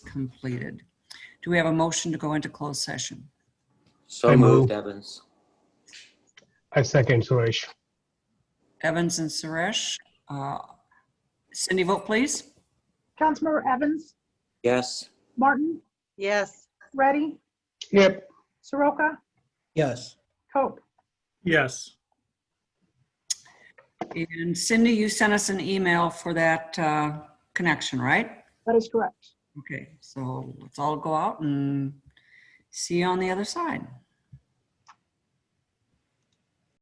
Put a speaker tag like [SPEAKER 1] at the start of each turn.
[SPEAKER 1] completed. Do we have a motion to go into closed session?
[SPEAKER 2] So
[SPEAKER 3] I move.
[SPEAKER 2] moved, Evans.
[SPEAKER 3] I second Suresh.
[SPEAKER 1] Evans and Suresh. uh, Cindy, vote please.
[SPEAKER 4] Councilmember Evans,
[SPEAKER 2] Yes.
[SPEAKER 4] Martin,
[SPEAKER 5] Yes.
[SPEAKER 4] Ready,
[SPEAKER 3] Yep.
[SPEAKER 4] Soroka,
[SPEAKER 6] Yes.
[SPEAKER 4] Cope.
[SPEAKER 6] Yes.
[SPEAKER 1] And Cindy, you sent us an email for that uh, connection, right?
[SPEAKER 4] That is correct.
[SPEAKER 1] Okay, so let's all go out and see you on the other side.